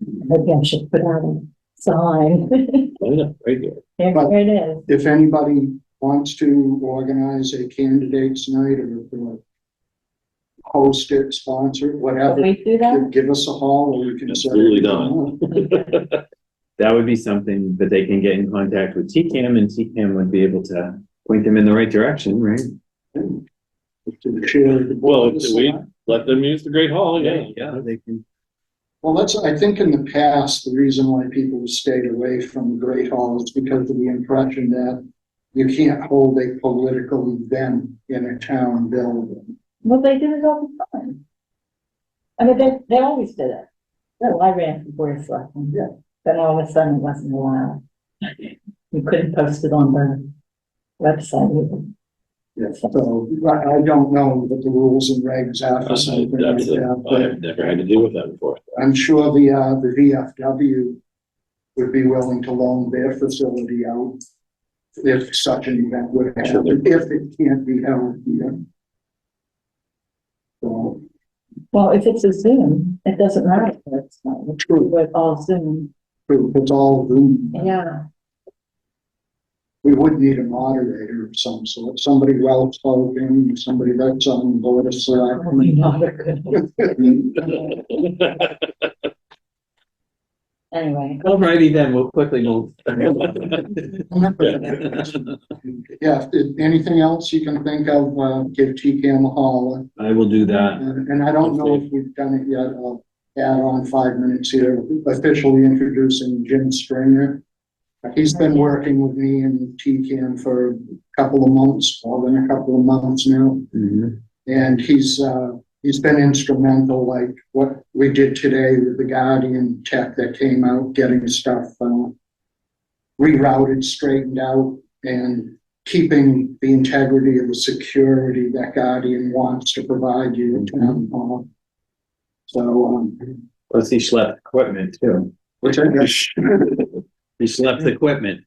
Maybe I should put out a sign. Oh, yeah, right here. There it is. If anybody wants to organize a candidates night or if you host it, sponsor it, Can whatever, we do then that? give us a hall or we can. set it Absolutely up. Okay. That would be something that they can get in contact with TCAM and TCAM would be able to point them in the right direction, right? To the chair of the Well, board. if we let them use the Great Hall, Oh, yeah. Yeah, they can. Well, that's, I think in the past, the reason why people stayed away from the Great Hall is because of the impression that you can't hold a political event in a town building. Well, they do it all the time. I mean, they, they always did it. Well, I ran for board of selectmen. Yeah. Then all of a sudden it wasn't allowed. You couldn't post it on the website either. So I, I don't know what the rules and regs are I- for something like That's, a- that, I but have never had to deal with that before. I'm sure the, uh, the VFW would be willing to loan their facility out if such an event would happen, if it can't be held here. So, Well, if it's a Zoom, it doesn't matter if it's not, it's true, with all Zoom. true, it's all Zoom. Yeah. We would need a moderator of some sort, somebody well spoken, somebody that's on board of Probably selectmen. not a good one. Anyway, Alrighty then, we'll quickly move. Yeah, if, anything else you can think of, uh, give TCAM a holler. I will do that. And and I don't know if we've done it yet, I'll add on five minutes here, officially introducing Jim Springer. He's been working with me and TCAM for a couple of months, more than a couple of months now. Mm-hmm. Mhm. And he's, uh, he's been instrumental, like what we did today with the Guardian tech that came out, getting stuff, uh, rerouted, straightened out, and keeping the integrity of the security that Guardian wants to provide you at town hall. So, um, Plus he schlepped equipment too. which I guess, He schlepped equipment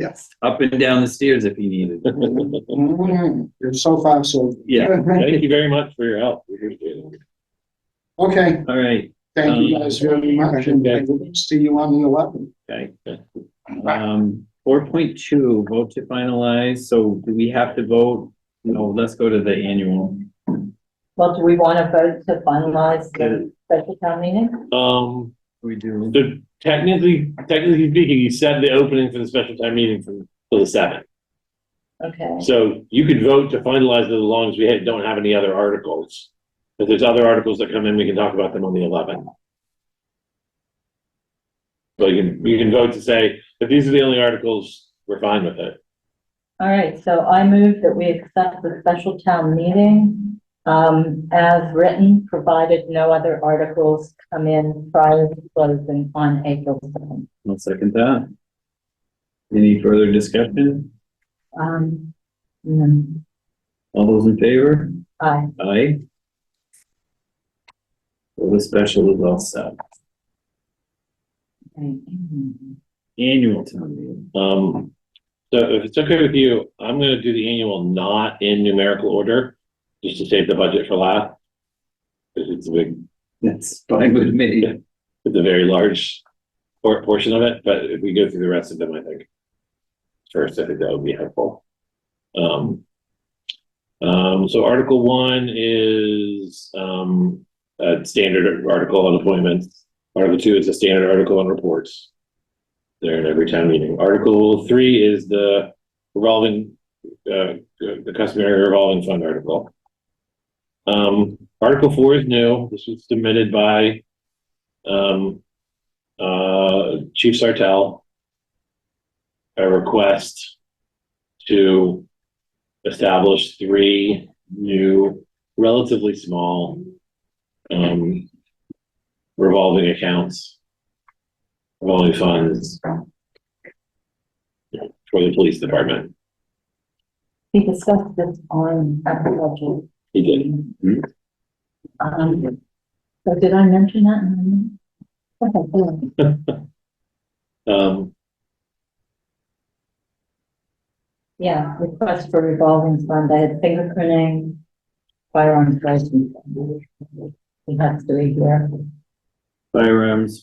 yes. up and down the stairs if he needed. So far, so. Yeah. Thank you very much for your help. We appreciate it. Okay, Alright, thank you guys very much, and I will see you on the eleventh. okay. Um, four point two, vote to finalize. So do we have to vote? No, let's go to the annual. well, do we want to vote to finalize the special town meeting? Um, We do. the, technically, technically speaking, you set the opening for the special time meeting from till the seventh. Okay. So you could vote to finalize it as long as we had- don't have any other articles. If there's other articles that come in, we can talk about them on the eleventh. But you can, you can vote to say, if these are the only articles, we're fine with it. All right, so I move that we accept the special town meeting um, as written, provided no other articles come in prior to closing on April seventh. I'll second that. Any further discussion? Um, mm, All those in favor? aye. Aye. Well, the special is all set. Annual town meeting. Um, so if it's okay with you, I'm gonna do the annual not in numerical order, just to save the budget for last. Cause it's a big, That's fine with me. it's a very large por- portion of it, but if we go through the rest of them, I think. First, I think that would be helpful. Um. um, so Article one is, um, a standard article on appointments. Article two is a standard article on reports. They're in every town meeting. Article three is the revolving, uh, the customary revolving fund article. Um, Article four is new. This was submitted by um, uh, Chief Sartell, a request to establish three new, relatively small, um, revolving accounts, revolving funds for the police department. We discussed this on at the budget. He did. Um, so did I mention that? in the minute? Okay, good. Um, Yeah, request for revolving fund, I had fingerprinting, firearms license. It has to be here. firearms